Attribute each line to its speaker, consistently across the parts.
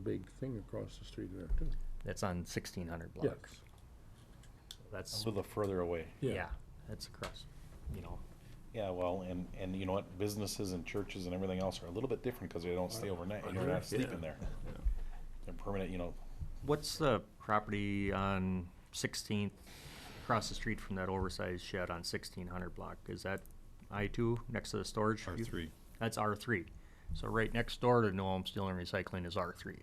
Speaker 1: big thing across the street there too.
Speaker 2: That's on sixteen hundred
Speaker 1: Yes,
Speaker 2: block. That's,
Speaker 3: A little further away.
Speaker 1: yeah.
Speaker 2: yeah, that's across, you know,
Speaker 3: Yeah, well, and, and you know what, businesses and churches and everything else are a little bit different because they don't stay overnight, and you're not sleeping there. They're permanent, you know,
Speaker 2: what's the property on Sixteenth, across the street from that oversized shed on sixteen hundred block? Is that I two next to the storage?
Speaker 4: R three.
Speaker 2: That's R three. So right next door to Noam Steel and Recycling is R three,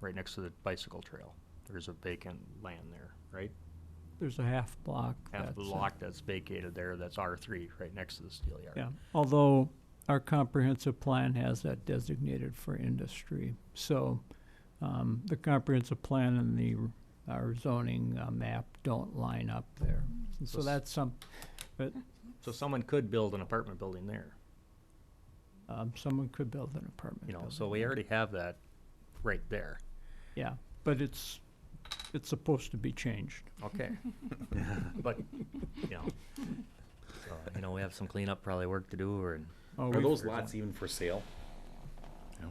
Speaker 2: right next to the bicycle trail. There's a vacant land there, right?
Speaker 5: There's a half block.
Speaker 2: Half
Speaker 5: that's,
Speaker 2: the
Speaker 5: uh,
Speaker 2: block that's vacated there, that's R three, right next to the steel yard.
Speaker 5: Yeah, although our comprehensive plan has that designated for industry. So, um, the comprehensive plan and the, our zoning uh, map don't line up there. And So
Speaker 2: s-
Speaker 5: that's some, but,
Speaker 2: So someone could build an apartment building there,
Speaker 5: um, someone could build an apartment.
Speaker 2: you know,
Speaker 5: building
Speaker 2: so we
Speaker 5: there.
Speaker 2: already have that right there.
Speaker 5: Yeah, but it's, it's supposed to be changed.
Speaker 2: Okay. But, you know, so, you know, we have some cleanup probably work to do or,
Speaker 5: Oh,
Speaker 3: are
Speaker 5: we-
Speaker 3: those lots even for sale?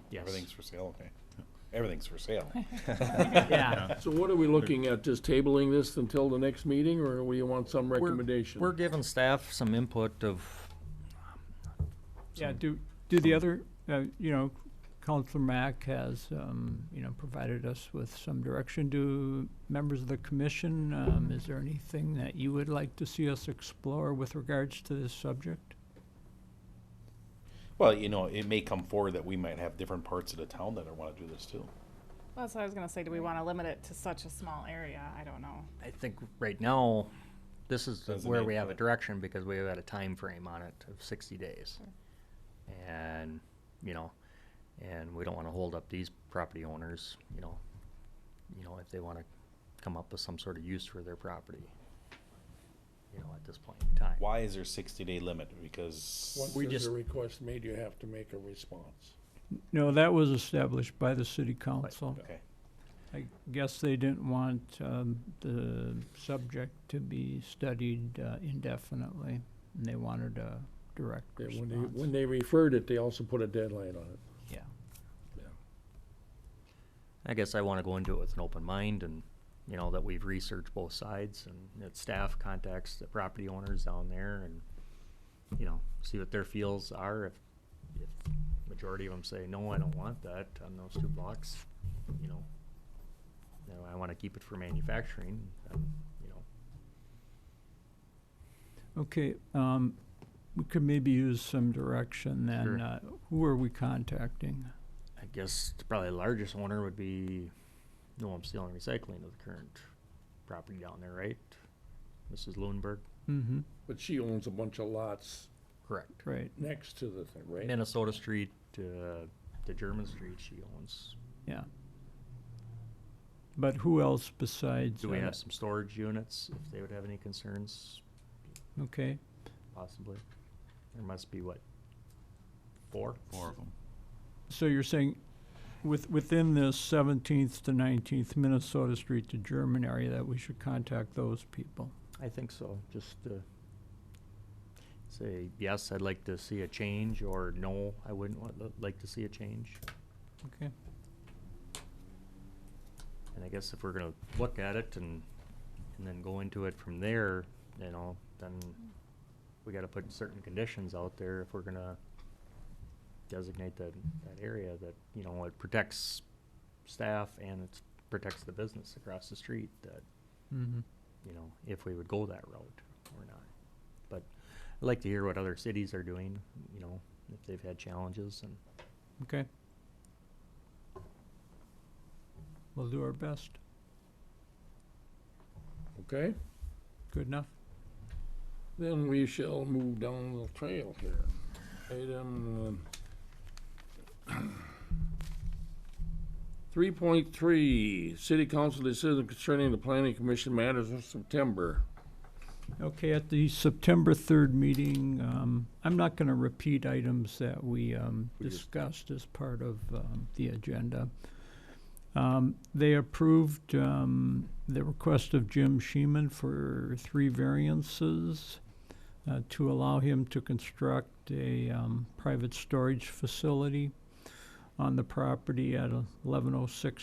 Speaker 2: yes.
Speaker 3: Everything's for sale, okay. Everything's for sale.
Speaker 5: Yeah,
Speaker 1: So what are we looking at, just tabling this until the next meeting, or we want some
Speaker 2: We're-
Speaker 1: recommendation?
Speaker 2: We're giving staff some input of,
Speaker 5: yeah,
Speaker 2: Some-
Speaker 5: do, do the other, uh, you know, Counselor Mack has, um, you know, provided us with some direction. Do members of the commission, um, is there anything that you would like to see us explore with regards to this subject?
Speaker 3: Well, you know, it may come forward that we might have different parts of the town that want to do this too.
Speaker 6: Well, that's what I was gonna say. Do we want to limit it to such a small area? I don't know.
Speaker 2: I think right now, this is the- where
Speaker 3: Designate
Speaker 2: we have a
Speaker 3: what?
Speaker 2: direction because we have had a time frame on it of sixty days. And, you know, and we don't wanna hold up these property owners, you know, you know, if they wanna come up with some sort of use for their property. You know, at this point in time.
Speaker 3: Why is there sixty day limit? Because,
Speaker 1: Once
Speaker 2: we
Speaker 1: there's
Speaker 2: just-
Speaker 1: a request made, you have to make a response.
Speaker 5: No, that was established by the city council.
Speaker 3: okay,
Speaker 5: I guess they didn't want, um, the subject to be studied uh, indefinitely, and they wanted a direct
Speaker 1: Yeah,
Speaker 5: response.
Speaker 1: When they, when they referred it, they also put a deadline on it.
Speaker 5: Yeah.
Speaker 2: I guess I wanna go into it with an open mind and, you know, that we've researched both sides and that staff contacts the property owners down there and, you know, see what their feels are. If, if majority of them say, no, I don't want that on those two blocks, you know, you know, I wanna keep it for manufacturing, um, you know,
Speaker 5: Okay, um, we could maybe use some direction
Speaker 2: Sure.
Speaker 5: then. Uh, Who are we contacting?
Speaker 2: I guess the probably the largest owner would be Noam Steel and Recycling of the current property down there, right? Mrs. Lundberg,
Speaker 5: Mm-hmm,
Speaker 1: But she owns a bunch of lots
Speaker 2: correct.
Speaker 5: right,
Speaker 1: next to the thing, right?
Speaker 2: Minnesota Street to, to German Street she owns.
Speaker 5: yeah. But who else besides?
Speaker 2: Do we
Speaker 5: uh,
Speaker 2: have some storage units, if they would have any concerns,
Speaker 5: Okay,
Speaker 2: possibly? There must be, what, four?
Speaker 4: Four of them.
Speaker 5: so you're saying with, within this seventeenth to nineteenth Minnesota Street to German area that we should contact those people?
Speaker 2: I think so, just, uh, say, yes, I'd like to see a change, or no, I wouldn't want, like to see a change.
Speaker 5: Okay,
Speaker 2: And I guess if we're gonna look at it and, and then go into it from there, you know, then we gotta put certain conditions out there if we're gonna designate that, that area that, you know, it protects staff and it protects the business across the street that,
Speaker 5: mm-hmm.
Speaker 2: you know, if we would go that route or not. But I'd like to hear what other cities are doing, you know, if they've had challenges and
Speaker 5: Okay. We'll do our best.
Speaker 1: Okay,
Speaker 5: Good enough?
Speaker 1: then we shall move down the trail here. Item um, three point three, city council decision concerning the planning commission matters of September.
Speaker 5: Okay, at the September third meeting, um, I'm not gonna repeat items that we, um,
Speaker 1: We just-
Speaker 5: discussed as part of, um, the agenda. Um, they approved, um, the request of Jim Sheeman for three variances uh, to allow him to construct a, um, private storage facility. on the property at eleven oh six